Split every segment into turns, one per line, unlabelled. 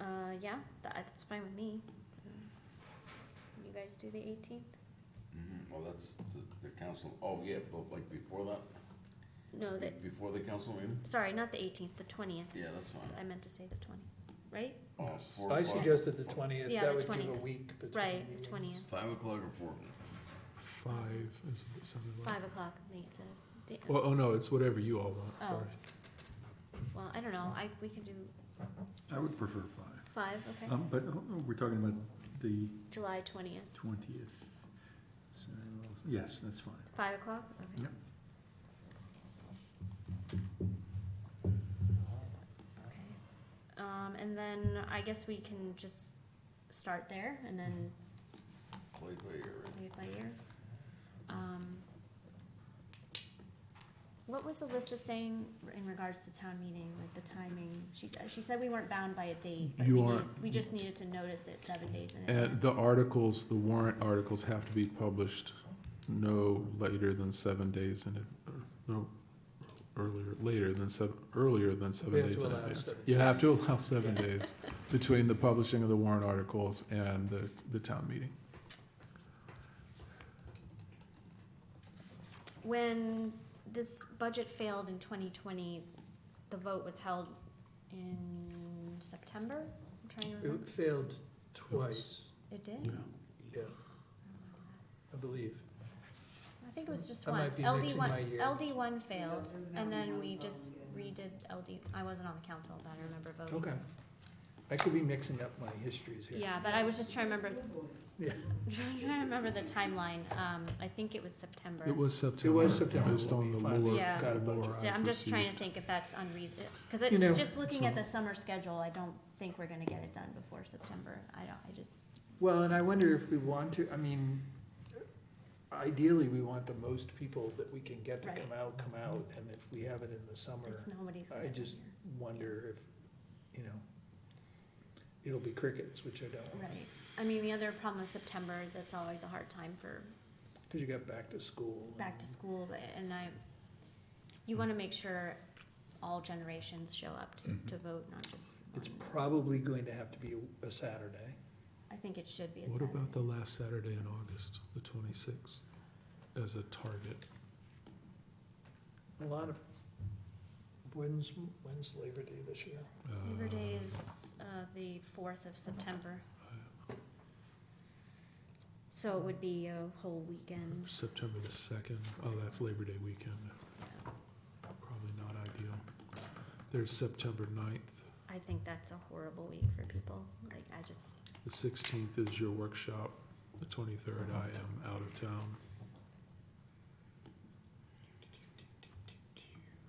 Uh, yeah, tha- that's fine with me. You guys do the eighteenth?
Mhm, oh, that's the, the council, oh, yeah, but like before that,
No, the,
be- before the council meeting?
sorry, not the eighteenth, the twentieth.
Yeah, that's fine.
I meant to say the twentieth, right?
Oh, four
I
o'clock.
suggested the twentieth,
Yeah,
that
the
would give a
20th.
week between
Right, the
meetings.
20th.
Five o'clock or four? o'clock?
Five, is what it sounded like.
Five o'clock, I think it says. Da-
Well, oh, no, it's whatever you all want,
Oh.
sorry.
Well, I don't know, I, we can do
I would prefer five,
five, okay?
um, but, oh, oh, we're talking about the
July twentieth,
twentieth, so, yes, that's fine.
five o'clock, okay.
Yep.
Okay. Um, and then I guess we can just start there and then
Play by ear, right?
play it by ear. Um, What was Alyssa saying in regards to town meeting, like the timing? She, s- she said we weren't bound by a date, but
You
we
aren't.
need- we just needed to notice it seven days in advance.
And the articles, the warrant articles have to be published no later than seven days in, ad- or, no, earlier, later than seven, earlier than
We
seven
have
days
to
in
allow
advance.
seven
You have to allow seven days between the publishing of the warrant articles and the, the town meeting.
When this budget failed in twenty twenty, the vote was held in September? I'm trying to remember.
It failed twice,
It did?
Yeah.
yeah, I believe.
I think it was just
I might
once.
be
LD
mixing
one,
my years.
LD one failed, and then we just redid LD, I wasn't on the council, but I remember voting.
Okay. I could be mixing up my histories here.
Yeah, but I was just trying to remember.
Yeah.
Trying to remember the timeline, um, I think it was September.
It was September.
September
Based
when
on
we
the
finally
lure-
Yeah.
got a budget.
lure
So I'm
I've
just trying to
received.
think if that's unreasonable, cause
You know,
it's just looking at
so-
the summer schedule, I don't think we're gonna get it done before September, I don't, I just,
Well, and I wonder if we want to, I mean, ideally, we want the most people that we can get to
Right. Mm-hmm.
come out, come out, and if we have it in the
it's
summer,
nobody's.
I
gonna be
just-
here.
wonder if, you know, it'll be crickets, which I don't want,
Right, I mean, the other problem with September is it's always a hard time for
because you got back to school.
back to
and-
school, but- and I, you wanna make sure all generations show up to,
Mhm.
to vote, not just
It's
one.
probably going to have to be a- a Saturday.
I think it should be a
What about
Saturday.
the last Saturday in August, the twenty-sixth, as a target?
A lot of, when's, when's Labor Day this year?
Uh,
Labor Day is, uh, the fourth of September. So it would be a whole weekend.
September the second, oh, that's Labor Day weekend, probably not ideal. There's September 9th.
I think that's a horrible week for people. Like, I just,
the sixteenth is your workshop, the twenty-third I am out of town.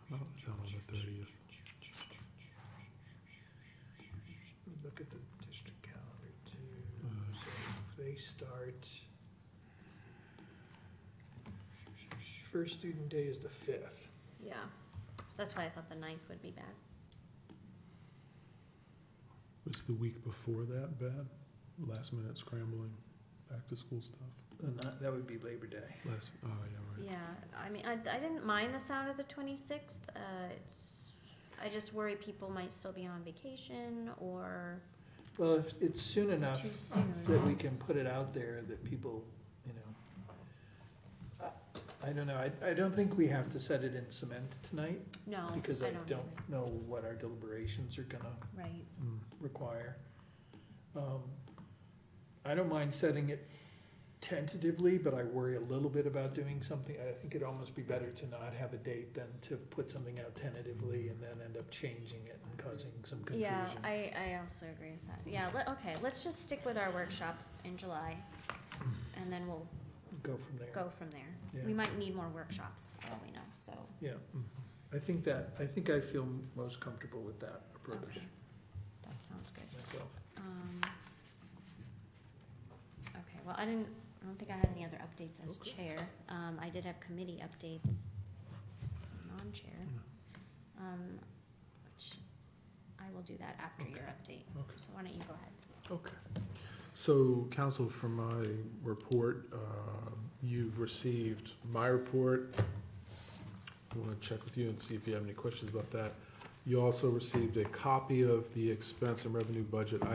I'm out of town on the thirtieth,
Let me Look at the district calendar
Uh.
too. So if They start. First student day is the fifth.
yeah. That's why I thought the ninth would be bad.
was the week before that bad? Last minute scrambling, back to school stuff,
The ni- that would be Labor Day.
last, oh, yeah, right.
Yeah, I mean, I, I didn't mind the sound of the twenty-sixth. Uh, it's, I just worry people might still be on vacation or
Well, if it's soon
it's
enough
too soon.
that we can put it out there that people, you know. I- I don't know. I, I don't think we have to set it in cement tonight
No, I don't
because I
know.
don't know what our deliberations are gonna
Right,
Mm.
require. Um, I don't mind setting it tentatively, but I worry a little bit about doing something. I think it'd almost be better to not have a date than to put something out tentatively and then end up changing it and causing some confusion.
yeah, I, I also agree with that. Yeah, let, okay, let's just stick with our workshops in July and then we'll
Go from there.
go from there.
Yeah.
We might need more workshops, for all we know, so.
Yeah,
Mhm.
I think that, I think I feel most comfortable with that approach
Okay. That sounds good.
myself.
Um, Okay, well, I didn't, I don't think I had any other updates as
Okay.
chair. Um, I did have committee updates as a non-chair. Um, which I will do that after your update,
Okay.
so why don't you go ahead?
Okay. So, council, from my report, um, you've received my report. I want to check with you and see if you have any questions about that. You also received a copy of the expense and revenue budget